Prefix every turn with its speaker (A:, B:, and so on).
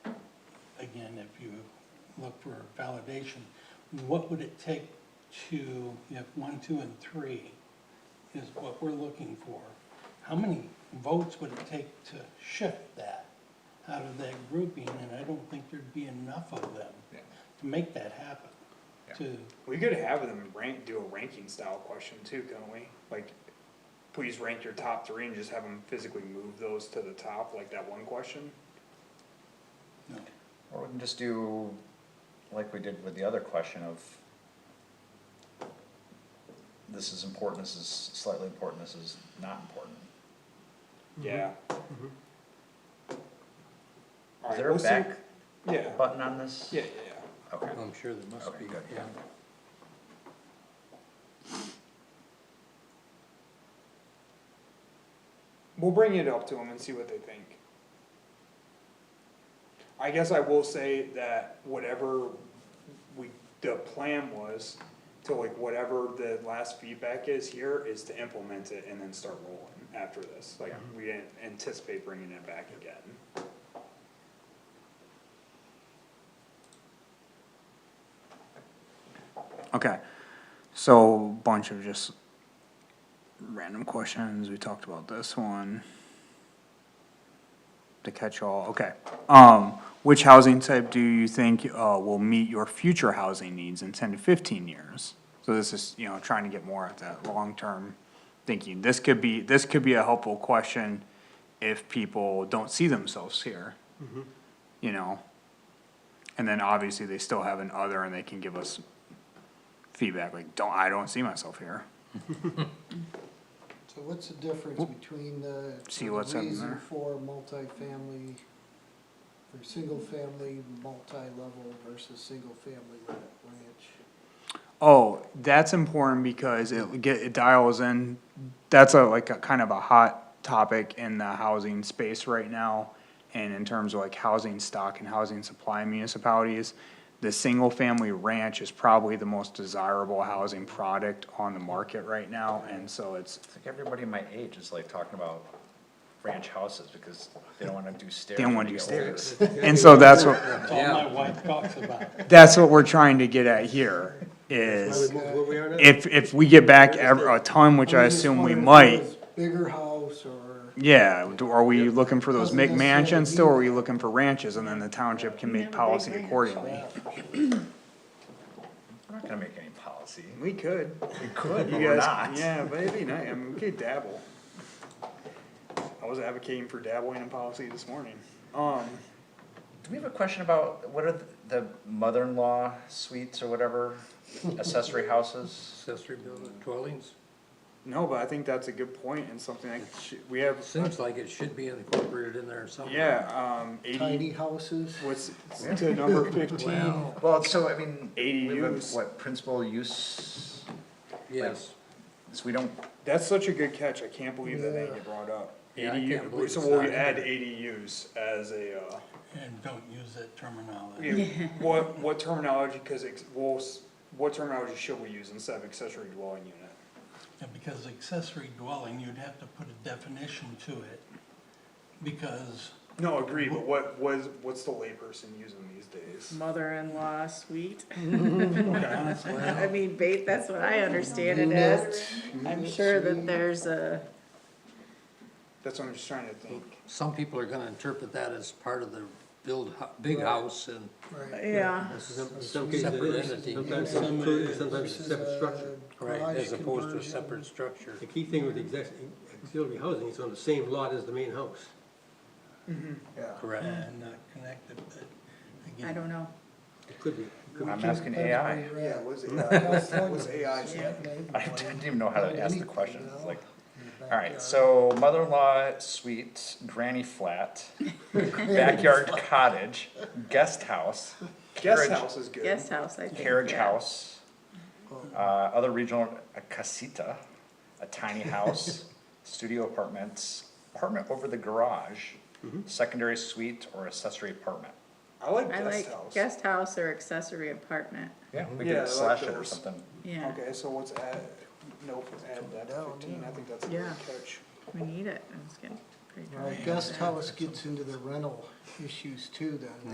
A: and if you look for validation, what would it take to, if one, two, and three is what we're looking for, how many votes would it take to shift that out of that grouping? And I don't think there'd be enough of them
B: Yeah.
A: to make that happen, to,
C: We could have them rank, do a ranking style question too, couldn't we? Like, please rank your top three and just have them physically move those to the top, like that one question?
A: you know,
B: Or we can just do like we did with the other question of this is important, this is slightly important, this is not important. Mm-hmm.
C: Yeah.
B: Is
C: Alright,
B: there a
C: let's do-
B: back
C: Yeah,
B: button on this?
C: yeah, yeah, yeah.
B: Okay,
D: I'm sure there must
B: Okay,
D: be,
B: good,
D: yeah.
C: We'll bring it up to them and see what they think. I guess I will say that whatever we, the plan was, to like whatever the last feedback is here, is to implement it and then start rolling after this. Like, we didn't anticipate bringing it back again. Okay, so bunch of just random questions, we talked about this one. The catch-all, okay. Um, which housing type do you think, uh, will meet your future housing needs in ten to fifteen years? So this is, you know, trying to get more at that long-term thinking. This could be, this could be a helpful question if people don't see themselves here. You know? And then obviously they still have an other and they can give us feedback, like, don't, I don't see myself here.
E: So what's the difference between the
C: See
E: the
C: what's up in
E: reason
C: there.
E: for multifamily, for single-family, multi-level versus single-family ranch?
C: Oh, that's important because it get, it dials in, that's a, like, a kind of a hot topic in the housing space right now. And in terms of like housing stock and housing supply in municipalities, the single-family ranch is probably the most desirable housing product on the market right now, and so it's,
B: I think everybody my age is like talking about ranch houses because they don't wanna do stairs.
C: they don't
B: when
C: wanna
B: they
C: do
B: get older.
C: stairs. And so that's what,
A: that's all my wife talks about.
C: that's what we're trying to get at here, is
D: Where we are now?
C: if, if we get back ever, a ton, which I
E: I'm just
C: assume we
E: wondering if it
C: might,
E: was Bigger house or,
C: Yeah, do- are we looking for those
E: Doesn't
C: McMansions
E: necessarily
C: still, or are
E: mean-
C: we looking for ranches, and then the township can make policy accordingly?
B: We're not gonna make any policy.
C: We could.
B: We could, but we're not.
C: Yeah, but it'd be nice, I mean, we could dabble. I was advocating for dabbling in policy this morning. Um,
B: Do we have a question about, what are the mother-in-law suites or whatever, accessory houses?
D: Accessory building dwellings,
C: no, but I think that's a good point and something I, we have,
D: It seems like it should be incorporated in there somewhere.
C: yeah, um, eighty,
E: tiny houses?
C: what's, to number fifteen?
D: Wow,
B: Well, so I mean. we have a-
C: ADUs.
B: What, principal use,
D: yes,
B: so we don't,
C: That's such a good catch, I can't believe that they get brought up.
D: Yeah, I can't
C: ADU
D: believe
C: So
D: it's
C: will
D: not
C: we
D: in
C: add
D: there.
C: ADUs as a, uh?
A: And don't use that terminology.
C: Yeah, what, what terminology, cause ex, well, s- what terminology should we use instead of accessory dwelling unit?
A: And because accessory dwelling, you'd have to put a definition to it, because
C: No, agree, but what was, what's the layperson using these days?
F: mother-in-law suite.
A: honestly,
F: I mean, ba- that's what I understand it as. I'm sure that there's a,
C: That's what I'm just trying to think.
D: some people are gonna interpret that as part of the build, hou- big house and
E: Right.
F: yeah,
D: separate entity.
G: Sometimes it's included, and sometimes it's a
E: uh,
G: separate structure.
D: Right, as opposed to a separate structure.
G: The key thing with the exec- auxiliary housing, it's on the same lot as the main house.
D: Correct.
A: and not connected, but again.
F: I don't know.
G: It could be.
B: I'm asking AI.
C: Yeah, was AI, was AI,
B: I didn't even know how to ask the question, it's like, alright, so mother-in-law suite, granny flat, backyard cottage, guest house.
C: guest
B: carriage-
C: house is good.
F: Guest house, I think.
B: Carriage
F: yeah.
B: house, uh, other regional, a casita, a tiny house, studio apartments, apartment over the garage, secondary suite or accessory apartment.
C: I like
F: I
C: guest
F: like
C: house.
F: guest house or accessory apartment,
B: Yeah, we
C: Yeah, I
B: could
C: like
B: slash it or
C: those.
B: something.
F: yeah,
C: Okay, so let's add, nope, add that to fifteen, I think that's a good
F: Yeah.
C: catch.
F: we need it, I'm just kidding. Pretty
E: Well,
F: tired.
E: guest house gets into the rental issues too then.